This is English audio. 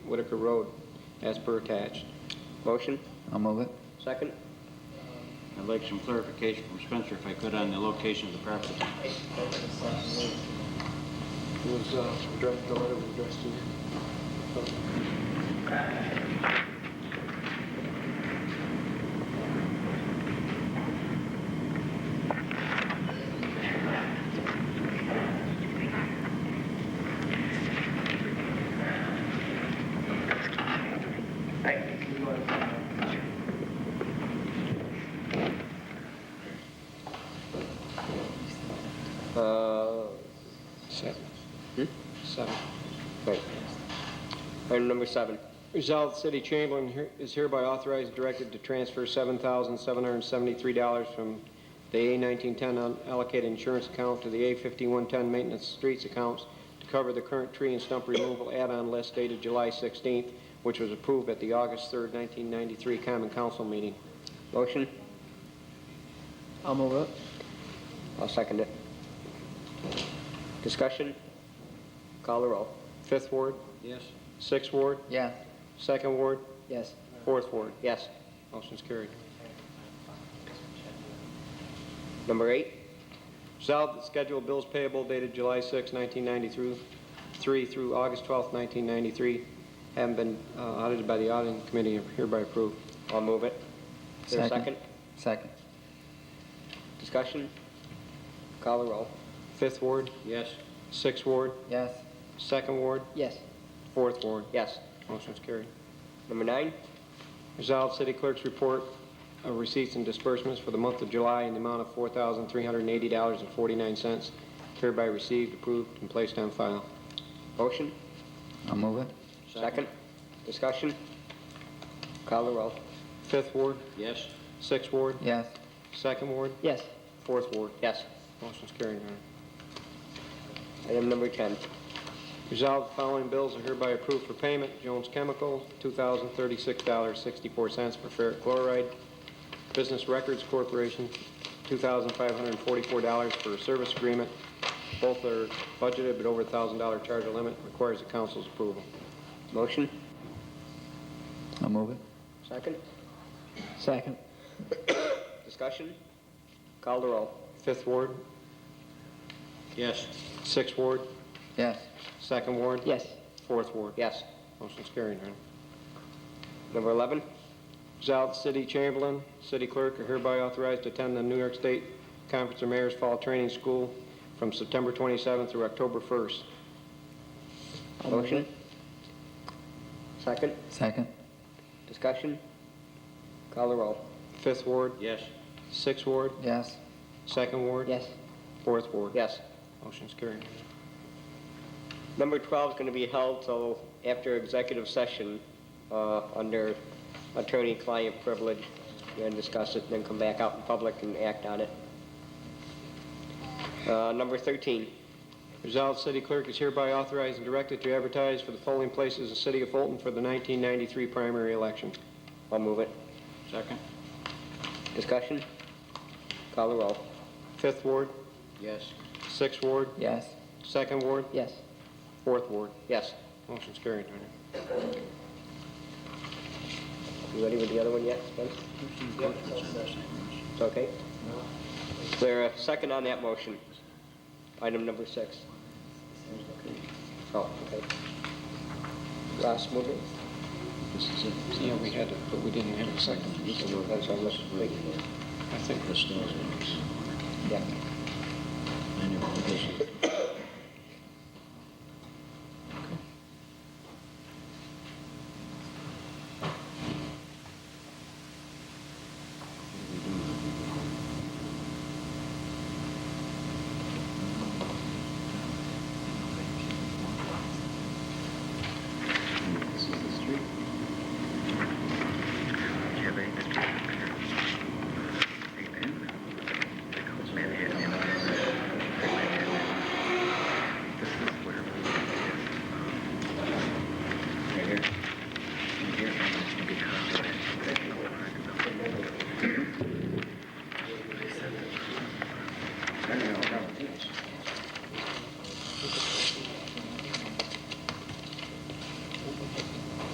Whitaker Road as per attached. Motion? I'll move it. Second? I'd like some clarification from Spencer, if I could, on the location of the property. was, uh, addressed, the letter was addressed to. Uh, Seven. Hmm? Seven. wait. Item number seven. Resolved, the city Chamberlain here- is hereby authorized and directed to transfer $7,773 from the A1910 unallocated insurance account to the A5110 maintenance streets accounts to cover the current tree and stump removal add-on list dated July 16th, which was approved at the August 3rd, 1993 Common Council meeting. Motion? I'll move it. I'll second it. Discussion? Call the roll. Fifth Ward, Yes. Sixth Ward, Yeah. Second Ward, Yes. Fourth Ward. Yes. Motion's carried. Number eight. Resolved that scheduled bills payable dated July 6, 1993 through- through August 12, 1993 haven't been uh, audited by the auditing committee and hereby approved. I'll move it. Is there a second? Second. Discussion? Call the roll. Fifth Ward, Yes. Sixth Ward, Yes. Second Ward, Yes. Fourth Ward. Yes. Motion's carried. Number nine. Resolved, city clerk's report of receipts and disbursements for the month of July in the amount of $4,380.49 hereby received, approved, and placed on file. Motion? I'll move it. Second? Discussion? Call the roll. Fifth Ward, Yes. Sixth Ward, Yes. Second Ward, Yes. Fourth Ward. Yes. Motion's carried, Your Honor. Item number 10. Resolved, the following bills are hereby approved for payment. Jones Chemical, $2,036.64 for ferric chloride. Business Records Corporation, $2,544 for a service agreement. Both are budgeted, but over a $1,000 charge limit requires the council's approval. Motion? I'll move it. Second? Second. Discussion? Call the roll. Fifth Ward, Yes. Sixth Ward, Yes. Second Ward. Yes. Fourth Ward. Yes. Motion's carried, Your Honor. Number 11. Resolved, City Chamberlain, City Clerk are hereby authorized to attend the New York State Conference of Mayors Fall Training School from September 27th through October 1st. Motion? Second? Second. Discussion? Call the roll. Fifth Ward, Yes. Sixth Ward, Yes. Second Ward. Yes. Fourth Ward. Yes. Motion's carried. Number 12 is going to be held till after executive session uh, under attorney-client privilege. We're going to discuss it, then come back out in public and act on it. Uh, Number 13. Resolved, City Clerk is hereby authorized and directed to advertise for the polling places in the City of Fulton for the 1993 primary election. I'll move it. Second? Discussion? Call the roll. Fifth Ward, Yes. Sixth Ward, Yes. Second Ward, Yes. Fourth Ward. Yes. Motion's carried, Your Honor. You ready with the other one yet, Spence? It's okay? Is there a second on that motion? Item number six. Oh, okay. Ross, move it. This is it. Yeah, we had it, but we didn't have a second. That's on this week. I think This does it. Yeah. Anyway, this is-